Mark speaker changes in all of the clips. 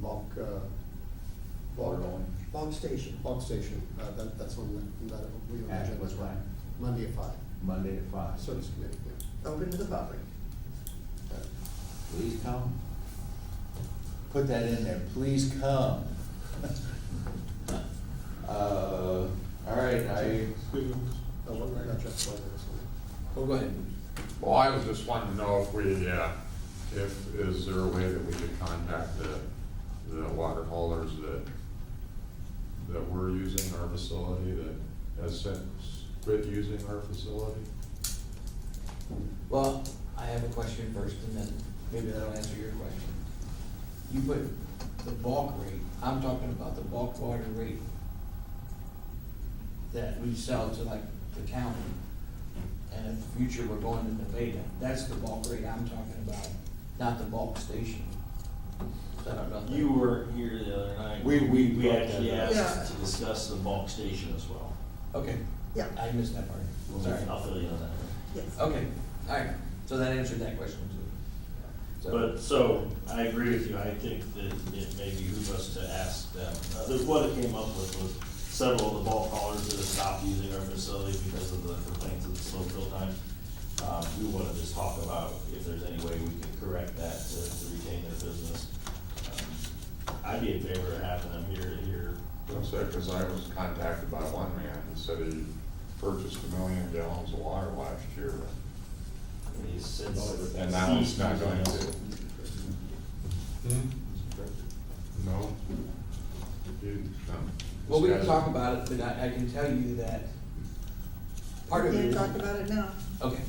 Speaker 1: Bog, uh, Bog.
Speaker 2: Bog.
Speaker 1: Bog Station. Bog Station, uh, that, that's when we, that we were.
Speaker 2: At what time?
Speaker 1: Monday at five,
Speaker 2: Monday at five.
Speaker 1: service committee, yeah. Uh,
Speaker 3: open to the public.
Speaker 2: Please come. Put that in there, please come. Uh, all right, I,
Speaker 1: Uh, what, I got Jeff's letter this morning.
Speaker 2: oh, go ahead.
Speaker 4: Well, I was just wanting to know if we, uh, if, is there a way that we could contact the, the water haulers that, that were using our facility, that has since quit using our facility?
Speaker 5: Well, I have a question first, and then maybe that'll answer your question. You put the bulk rate, I'm talking about the bulk water rate that we sell to like the county, and in the future, we're going to Nevada, that's the bulk rate I'm talking about, not the bulk station. So I don't know if that-
Speaker 6: You were here the other night.
Speaker 2: We- we
Speaker 6: We
Speaker 2: brought
Speaker 6: actually
Speaker 2: that
Speaker 3: up.
Speaker 6: asked to discuss the bulk station as well.
Speaker 5: Okay,
Speaker 3: Yeah,
Speaker 5: I missed that part, sorry.
Speaker 6: I'll fill you in on that.
Speaker 3: yes.
Speaker 5: Okay, alright, so that answered that question too. So-
Speaker 6: But, so, I agree with you, I think that it may behoove us to ask them. Uh, the- What it came up with was several of the ball callers that have stopped using our facility because of the complaints of the slow fill times. Um, we wanna just talk about if there's any way we could correct that to to retain their business. Um, I'd be in favor of having them here to hear.
Speaker 4: Looks like, cause I was contacted by one man who said he purchased a million gallons of water last year,
Speaker 6: He's since.
Speaker 4: and that one's not going to. Hmm? No? um, You- no.
Speaker 5: Well, we can talk about it, but I, I can tell you that part
Speaker 3: We
Speaker 5: of it
Speaker 3: can
Speaker 5: is,
Speaker 3: talk about it now.
Speaker 5: okay,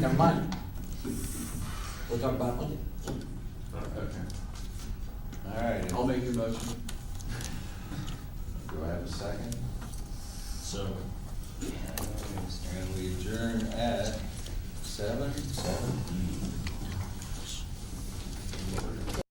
Speaker 5: never mind. We'll talk about it Monday.
Speaker 4: Okay.
Speaker 2: Okay. All right.
Speaker 5: I'll make your motion.
Speaker 2: Do I have a second?
Speaker 6: So,
Speaker 2: And we adjourn at seven, seven.